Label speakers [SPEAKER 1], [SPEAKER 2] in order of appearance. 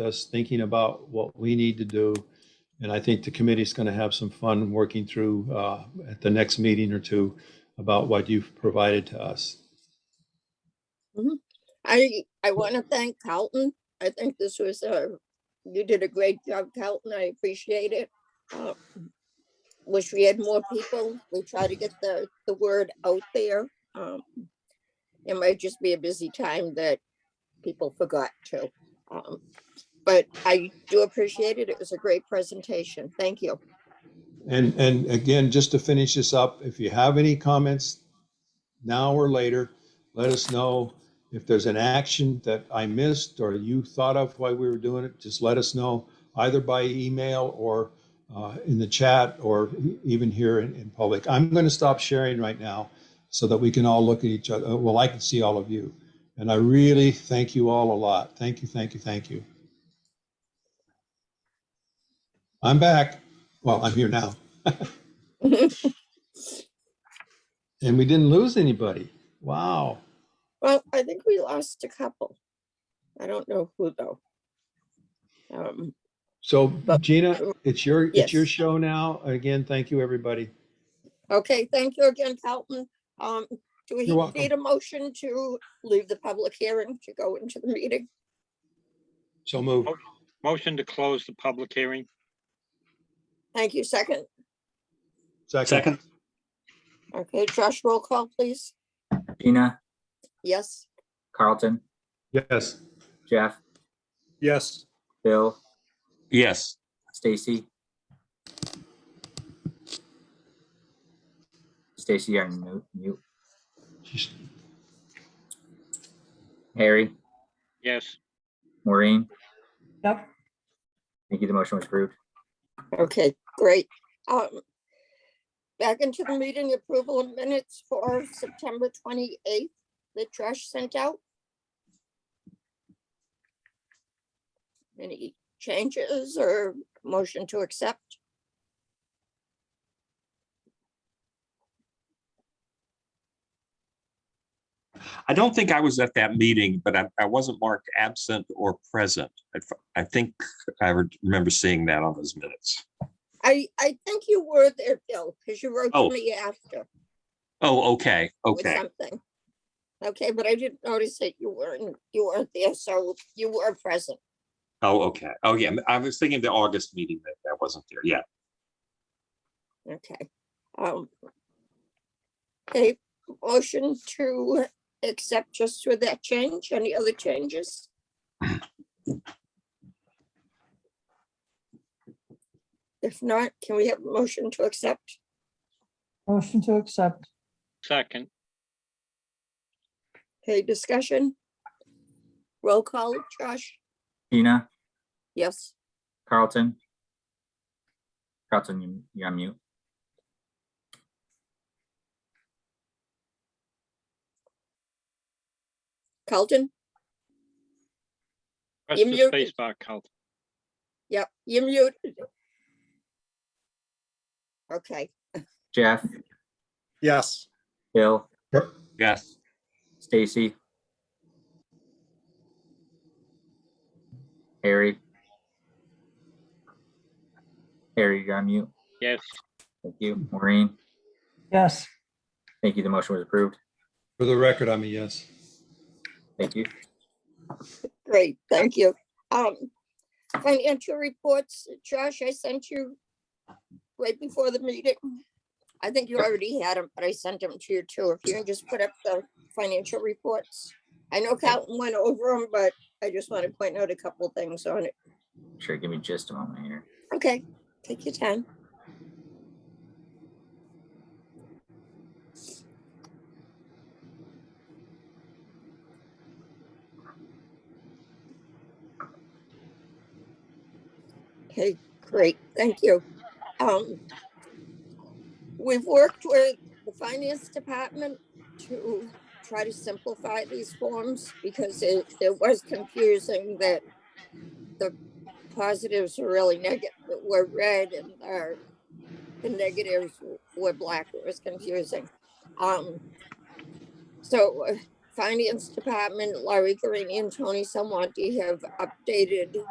[SPEAKER 1] us thinking about what we need to do. And I think the committee's going to have some fun working through uh, at the next meeting or two about what you've provided to us.
[SPEAKER 2] I, I want to thank Carlton. I think this was a, you did a great job, Carlton. I appreciate it. Uh, Wish we had more people. We try to get the, the word out there. Um, It might just be a busy time that people forgot to. Um, But I do appreciate it. It was a great presentation. Thank you.
[SPEAKER 1] And, and again, just to finish this up, if you have any comments now or later, let us know. If there's an action that I missed or you thought of while we were doing it, just let us know either by email or uh, in the chat or e- even here in, in public. I'm going to stop sharing right now so that we can all look at each other. Uh, Well, I can see all of you. And I really thank you all a lot. Thank you, thank you, thank you. I'm back. Well, I'm here now. And we didn't lose anybody. Wow.
[SPEAKER 2] Well, I think we lost a couple. I don't know who though. Um,
[SPEAKER 1] So
[SPEAKER 2] But-
[SPEAKER 1] Gina, it's your, it's your
[SPEAKER 2] Yes.
[SPEAKER 1] show now. Again, thank you, everybody.
[SPEAKER 2] Okay, thank you again, Carlton. Um, do we
[SPEAKER 1] You're welcome.
[SPEAKER 2] need a motion to leave the public hearing to go into the meeting?
[SPEAKER 1] So move.
[SPEAKER 3] Motion to close the public hearing.
[SPEAKER 2] Thank you, second.
[SPEAKER 4] Second,
[SPEAKER 2] Okay, Josh, roll call, please.
[SPEAKER 4] Gina,
[SPEAKER 2] Yes,
[SPEAKER 4] Carlton,
[SPEAKER 1] Yes.
[SPEAKER 4] Jeff,
[SPEAKER 3] Yes.
[SPEAKER 4] Bill,
[SPEAKER 5] Yes,
[SPEAKER 4] Stacy. Stacy, you're on mute- mute.
[SPEAKER 1] She's-
[SPEAKER 4] Harry,
[SPEAKER 3] Yes.
[SPEAKER 4] Maureen.
[SPEAKER 6] Yep.
[SPEAKER 4] Thank you. The motion was approved.
[SPEAKER 2] okay, great. Um, back into the meeting approval of minutes for September twenty-eighth that Josh sent out. Any changes or motion to accept?
[SPEAKER 5] I don't think I was at that meeting, but I, I wasn't marked absent or present. I f- I think I re- remember seeing that on those minutes.
[SPEAKER 2] I, I think you were there, Bill, because you wrote
[SPEAKER 5] Oh.
[SPEAKER 2] to me after.
[SPEAKER 5] Oh, okay,
[SPEAKER 2] with
[SPEAKER 5] okay.
[SPEAKER 2] something. Okay, but I didn't notice that you weren't, you weren't there, so you were present.
[SPEAKER 5] Oh, okay. Oh, yeah. I was thinking of the August meeting that that wasn't there. Yeah.
[SPEAKER 2] Okay. Um. Okay, motion to accept just with that change. Any other changes? If not, can we have a motion to accept?
[SPEAKER 6] Motion to accept.
[SPEAKER 3] Second.
[SPEAKER 2] Okay, discussion? Roll call, Josh?
[SPEAKER 4] Gina,
[SPEAKER 2] Yes.
[SPEAKER 4] Carlton. Carlton, you- you're on mute.
[SPEAKER 2] Carlton?
[SPEAKER 3] Press
[SPEAKER 2] You
[SPEAKER 3] the
[SPEAKER 2] muted.
[SPEAKER 3] space bar, Carl.
[SPEAKER 2] Yep, you muted. Okay.
[SPEAKER 4] Jeff,
[SPEAKER 7] Yes.
[SPEAKER 4] Bill,
[SPEAKER 5] Yes.
[SPEAKER 4] Stacy. Harry. Harry, you're on mute.
[SPEAKER 3] Yes.
[SPEAKER 4] Thank you, Maureen.
[SPEAKER 6] Yes.
[SPEAKER 4] Thank you. The motion was approved.
[SPEAKER 1] For the record, I'm a yes.
[SPEAKER 4] Thank you.
[SPEAKER 2] Great, thank you. Um, financial reports, Josh, I sent you right before the meeting. I think you already had them, but I sent them to you too. If you can just put up the financial reports. I know Calvin went over them, but I just want to point out a couple things on it.
[SPEAKER 4] Sure, give me just a moment here.
[SPEAKER 2] Okay, take your time. Okay, great, thank you. Um, we've worked with the finance department to try to simplify these forms because it, it was confusing that the positives were really negative, were red and our, the negatives were black. It was confusing. Um, so uh, finance department, Larry Green and Tony Salmonte have updated